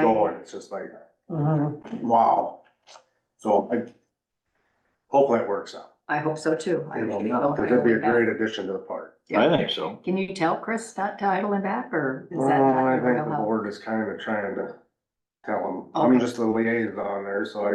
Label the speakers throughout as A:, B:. A: it's just like,
B: Mhm.
A: Mm-hmm. wow. So I, hopefully it works out.
B: I hope so too. I
A: You know,
B: really hope I
A: because it'd be a
B: hope that-
A: great addition to the park.
C: I think so.
B: Can you tell Chris not to idle and back or is
A: Well,
B: that not
A: Mm-hmm. I
B: your
A: think
B: real
A: the
B: help?
A: board is kind of trying to tell them, I'm
B: Okay.
A: just the liaison there, so I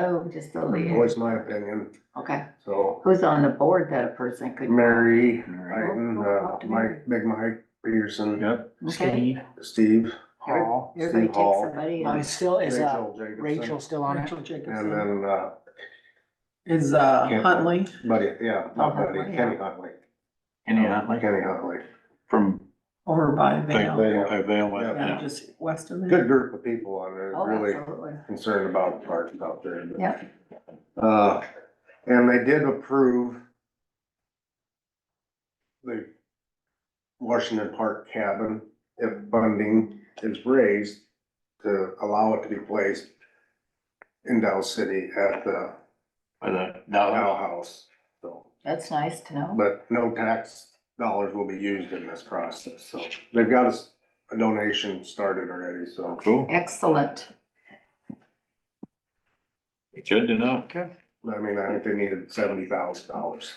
B: Oh, just the lead.
A: voice my opinion,
B: Okay.
A: so.
B: Who's on the board that a person could?
A: Mary,
C: Right.
A: Ivan, uh, Mike, Big Mike, Peterson,
C: Yep.
B: Okay.
A: Steve.
D: Hall.
B: Everybody
A: Steve
B: takes
A: Hall,
B: somebody.
D: I
B: on-
D: still, is uh,
A: Rachel Jacobson,
D: Rachel still on it?
E: Rachel
A: And
E: Jacobson
A: then, uh,
E: is uh
C: Can't-
E: Huntley.
A: Buddy, yeah, not
B: Oh,
A: Buddy,
B: Huntley,
A: Kenny
B: yeah.
A: Huntley.
C: Any, uh, like,
A: Kenny Huntley.
C: from,
E: over by
C: like,
E: Vale.
C: Vale, uh, Vale, uh,
E: Yeah,
C: yeah.
E: just west of
A: Good
E: there.
A: group of people on there,
B: Oh,
A: really
B: absolutely.
A: concerned about the parks out there. but-
B: Yeah.
A: Uh, and they did approve the Washington Park cabin, if funding is raised, to allow it to be placed in Dow City at the
C: By the
A: Dow
C: dollar.
A: House, so.
B: That's nice to know.
A: But no tax dollars will be used in this process, so they've got us a donation started already, so.
C: Cool.
B: Excellent.
C: Good to know.
A: I mean, I think they needed seventy thousand dollars.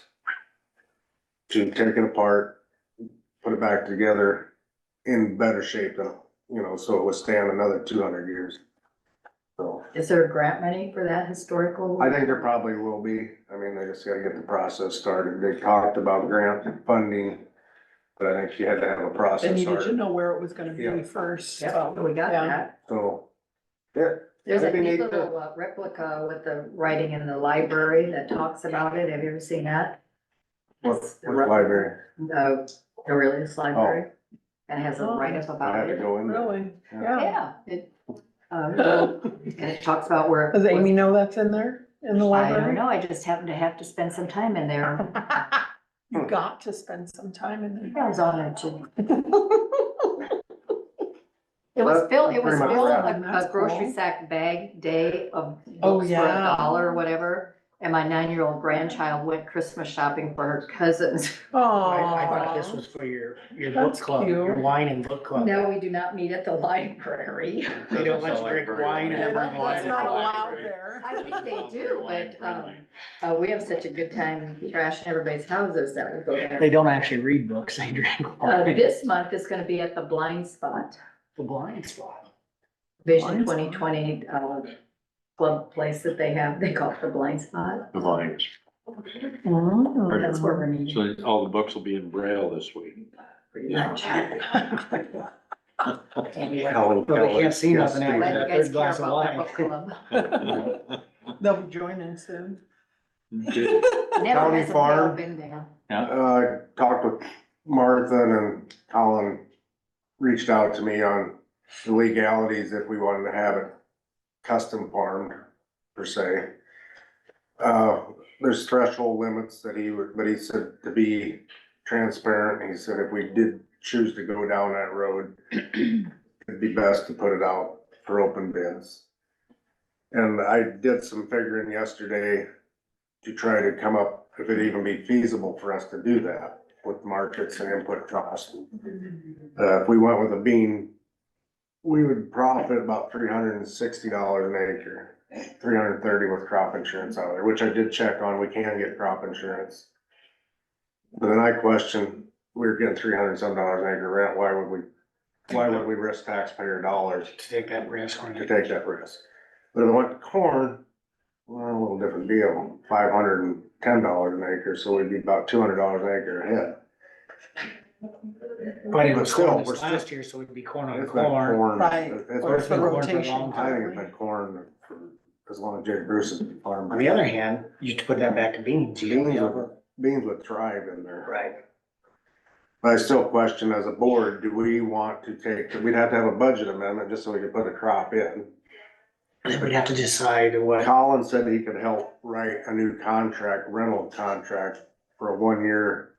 A: To take it apart, put it back together in better shape than, you know, so it would stand another two hundred years. So,
B: Is there grant money for that historical?
A: I think there probably will be, I mean, they just gotta get the process started, they talked about grant funding. But I think she had to have a process
E: Benny, did you
A: started,
E: know where it was gonna be
A: Yeah.
E: first?
B: Yeah, we got
E: Yeah.
B: that.
A: so. Yeah,
B: There's a
A: Maybe
B: neat
A: need to-
B: little uh, replica with the writing in the library that talks about it. Have you ever seen that?
A: what,
B: It's the
A: what library, Oh.
B: No, Aurelius Library. And has a write-up
A: I
B: about
A: had to
B: it.
A: go in there.
E: Really?
A: Um, Yeah.
E: Yeah.
B: Yeah. it, uh, And it talks about where. it
E: Does Amy
B: was-
E: know that's in there, in the
B: I don't
E: library?
B: know. I just happen to have to spend some time in there.
E: You got to spend some time in
B: I
E: there.
B: was honored to. It was
A: That-
B: Phil, it was
A: pretty much
B: Phil,
E: that.
B: a a grocery sack bag day of
E: Oh,
B: books for a
E: yeah.
B: dollar or whatever. And my nine-year-old grandchild went Christmas shopping for her cousins.
D: I, I thought this
E: Aww.
D: was for your, your book
E: That's
D: club, your
E: cute.
D: wine and book club.
B: No, we do not meet at the library.
D: They don't let you drink wine
E: Yeah,
D: and
E: that-
D: bring wine.
E: That's
D: to
E: not
D: the
E: allowed
D: library.
E: there.
B: I think they do, but, um, uh, we have such a good time trashing everybody's houses that we go
D: They
B: there.
D: don't actually read books, they drink
B: Uh,
D: wine.
B: this month is gonna be at the Blind Spot,
D: The blind spot.
B: Vision
E: Blind Spot?
B: twenty twenty, uh, club place that they have, they call it the Blind Spot.
C: The volumes.
B: That's where we're meeting.
C: So all the books will be in Braille this week.
B: pretty much.
D: Oh.
B: Anyway,
A: Helen
D: Well, they
A: Keller,
D: can't see
A: yes,
D: nothing
A: Steve.
D: after
B: Glad you
D: that
B: guys
D: third
B: care
D: glass of
B: about that
D: wine.
B: book club.
E: They'll be joining soon.
C: Good.
B: Never
A: County
B: has a
A: Farm.
B: bill been there.
A: Uh, talked with Martha and Colin reached out to me on the legalities if we wanted to have it custom farmed per se. Uh, there's threshold limits that he would, but he said to be transparent, he said if we did choose to go down that road, it'd be best to put it out for open bids. And I did some figuring yesterday to try to come up, if it even be feasible for us to do that with markets and input costs. Uh, if we went with a bean, we would profit about three hundred and sixty dollars an acre, three hundred and thirty with crop insurance out there, which I did check on, we can get crop insurance. But then I question, we were getting three hundred and some dollars an acre rent, why would we, why would we risk taxpayer dollars
D: To take that risk on
A: to
D: it.
A: take that risk. But if I went to corn, well, a little different deal, five hundred and ten dollars an acre, so we'd be about two hundred dollars an acre ahead.
D: But it
A: But
D: was
A: still,
D: corn
A: we're
D: this
A: still-
D: last year, so it'd be corn on
A: It's been
D: Uh, corn.
A: corn.
E: Right,
A: It's
E: or it's
A: been
E: the
D: for a
A: corn.
E: rotation.
D: long
A: I
D: time.
A: think it's been corn for as long as Jerry Bruce has been
D: On the
A: farming.
D: other hand, you put that back to beans. you
A: Beans
D: know,
A: would, beans would thrive in there.
D: Right.
A: But I still question as a board, do we want to take, we'd have to have a budget amendment just so we could put a crop in.
D: Then we'd have to decide what.
A: Colin said he could help write a new contract, rental contract for a one-year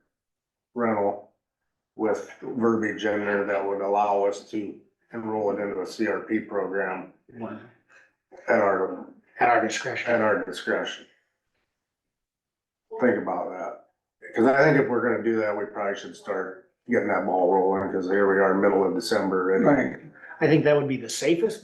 A: rental with verbiage in there that would allow us to enroll it into a CRP program at our,
D: At our discretion.
A: at our discretion. Think about that, because I think if we're gonna do that, we probably should start getting that ball rolling, because here we are, middle of December, and
E: Right.
D: I think that would be the safest